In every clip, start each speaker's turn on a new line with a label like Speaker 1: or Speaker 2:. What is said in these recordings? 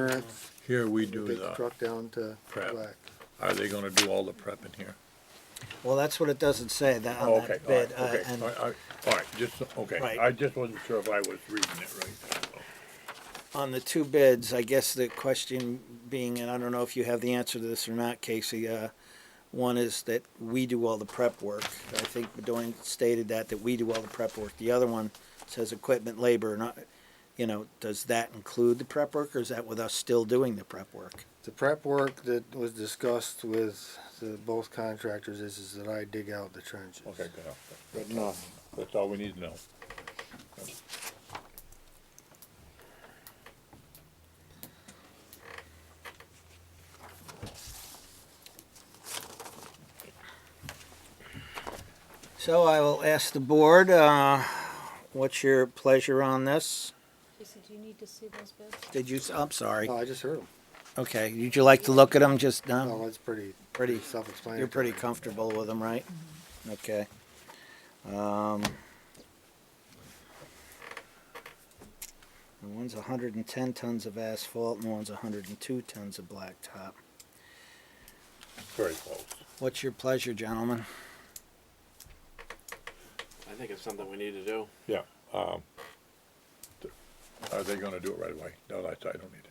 Speaker 1: insurance,
Speaker 2: Here we do
Speaker 1: big
Speaker 2: the,
Speaker 1: truck down to
Speaker 2: prep.
Speaker 1: Black.
Speaker 2: are they gonna do all the prep in here?
Speaker 3: Well, that's what it doesn't say, that,
Speaker 2: Oh,
Speaker 3: on
Speaker 2: Okay,
Speaker 3: that
Speaker 2: all right,
Speaker 3: bid, uh,
Speaker 2: okay,
Speaker 3: and,
Speaker 2: all right, all right, all right, just, okay,
Speaker 3: Right.
Speaker 2: I just wasn't sure if I was reading it right.
Speaker 3: on the two bids, I guess the question being, and I don't know if you have the answer to this or not, Casey, uh, one is that we do all the prep work. I think Bedoin stated that, that we do all the prep work. The other one says equipment, labor, and, I- you know, does that include the prep work, or is that with us still doing the prep work?
Speaker 1: The prep work that was discussed with the both contractors is, is that I dig out the trenches.
Speaker 2: Oh, Okay, good,
Speaker 1: But no,
Speaker 2: that's all we need to know.
Speaker 3: So I will ask the board, uh, what's your pleasure on this?
Speaker 4: Jason, do you need to see those bids?
Speaker 3: Did you, s- I'm sorry.
Speaker 1: no, Oh, I just heard them.
Speaker 3: Okay, would you like to look at them just now?
Speaker 1: No, that's pretty,
Speaker 3: Pretty,
Speaker 1: pretty self-explanatory.
Speaker 3: Um, you're pretty comfortable with them, right? Okay. Um, and one's hundred and ten tons of asphalt and one's hundred and two tons of blacktop.
Speaker 2: Very close.
Speaker 3: What's your pleasure, gentlemen?
Speaker 5: I think it's something we need to do.
Speaker 2: Yeah, um, th- are they gonna do it right away? No, that's, I don't need it.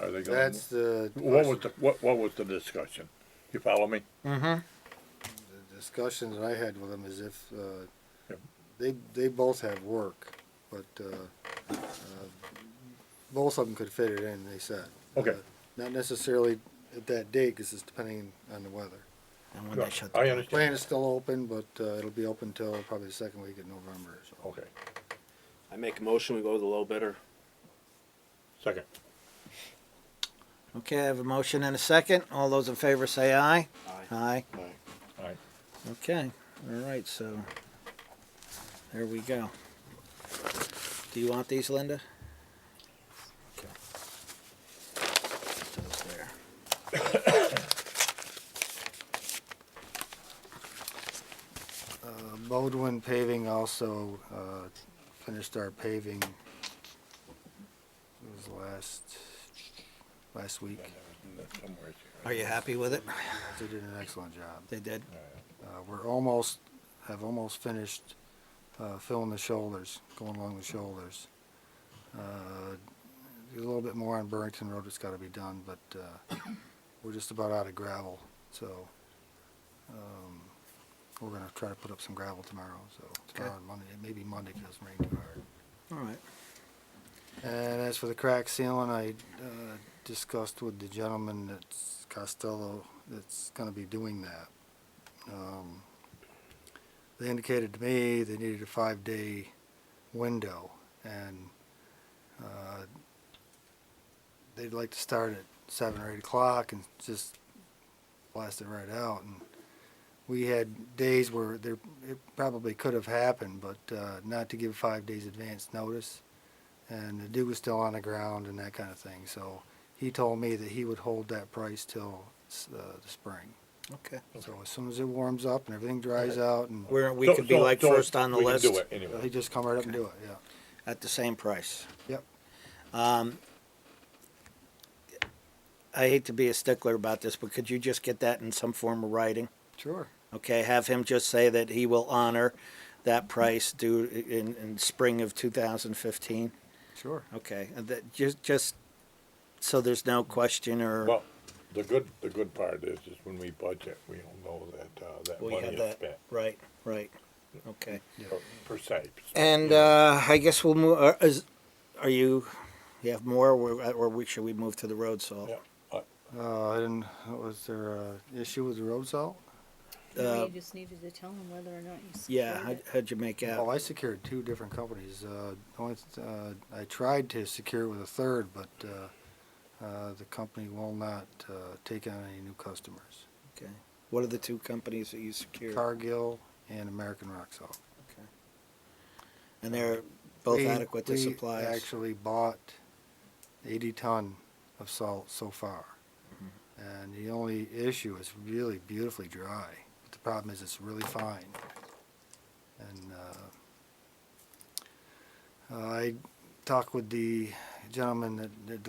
Speaker 2: Are- Are they gonna?
Speaker 1: That's the.
Speaker 2: What was the, what, what was the discussion? You follow me?
Speaker 1: the discussion that I had with them is if, uh,
Speaker 2: Yep.
Speaker 1: they, they both have work, but, uh, uh, both of them could fit it in, they said.
Speaker 2: Okay.
Speaker 1: Uh, Not necessarily at that date, cause it's depending on the weather.
Speaker 3: And when they shut the
Speaker 2: I
Speaker 3: plant?
Speaker 1: Plant
Speaker 2: understand,
Speaker 1: is still open, but, uh, it'll be open till probably the second week of November, so.
Speaker 2: okay,
Speaker 5: I make a motion, we go with the low bidder.
Speaker 2: second.
Speaker 3: Okay, I have a motion and a second. All those in favor say aye.
Speaker 5: Aye.
Speaker 3: Aye.
Speaker 2: All right,
Speaker 3: Okay, all right, so there we go. Do you want these, Linda? Okay. Put those there.
Speaker 1: Uh, Bodwin Paving also, uh, finished our paving, it was last, last week.
Speaker 2: somewhere it's here.
Speaker 3: Are you happy with it?
Speaker 1: They did an excellent job.
Speaker 3: They did?
Speaker 1: Uh, we're almost, have almost finished, uh, filling the shoulders, going along the shoulders. Uh, A little bit more on Burrington Road that's gotta be done, but, uh, we're just about out of gravel, so, um, we're gonna try to put up some gravel tomorrow, so, tomorrow and Monday, maybe Monday, cause it's raining too hard.
Speaker 3: All right.
Speaker 1: And as for the crack sealing, I uh, discussed with the gentleman that's Costello, that's gonna be doing that. Um, They indicated to me they needed a five-day window, and uh, they'd like to start at seven or eight o'clock and just blast it right out. And We had days where there, it probably could have happened, but uh, not to give five days advance notice and the dew was still on the ground and that kind of thing. So he told me that he would hold that price till s- uh, the spring.
Speaker 3: Okay.
Speaker 1: So as soon as it warms up and everything dries out, and
Speaker 3: We're, we
Speaker 2: So-
Speaker 3: could be
Speaker 2: so-
Speaker 3: like
Speaker 2: so
Speaker 3: first on the
Speaker 2: we can
Speaker 3: list
Speaker 2: do it
Speaker 1: so
Speaker 2: anyway.
Speaker 1: he just come right up and do it. Yeah.
Speaker 3: at the same price.
Speaker 1: Yep.
Speaker 3: Um, I hate to be a stickler about this, but could you just get that in some form of writing?
Speaker 1: Sure.
Speaker 3: Okay, have him just say that he will honor that price due in, in spring of two thousand fifteen?
Speaker 1: Sure.
Speaker 3: Okay, and that, just, just, so there's no question or,
Speaker 2: Well, the good, the good part is, is when we budget, we don't know that, uh, that
Speaker 3: well, you
Speaker 2: money
Speaker 3: have
Speaker 2: is
Speaker 3: that,
Speaker 2: spent,
Speaker 3: right, right, okay.
Speaker 2: per- per se.
Speaker 3: And, uh, I guess we'll move, are, is, are you, you have more, or, or we, should we move to the road salt?
Speaker 2: Yeah, I-
Speaker 1: Uh, I didn't. what Was there a issue with the road salt?
Speaker 3: Uh,
Speaker 4: You just needed to tell them whether or not you
Speaker 3: Yeah,
Speaker 4: secured
Speaker 3: how'd,
Speaker 4: it.
Speaker 3: how'd you make
Speaker 1: Well,
Speaker 3: out?
Speaker 1: I secured two different companies. Uh, the only th- uh, I tried to secure it with a third, but uh, uh, the company will not uh, take on any new customers.
Speaker 3: Okay. What are the two companies that you secured?
Speaker 1: Cargill and American Rock Salt.
Speaker 3: Okay. And they're both
Speaker 1: We-
Speaker 3: adequate to
Speaker 1: we
Speaker 3: supply us?
Speaker 1: Actually bought eighty ton of salt so far. And the only issue is really beautifully dry. But The problem is it's really fine. And, uh, I talked with the gentleman that, that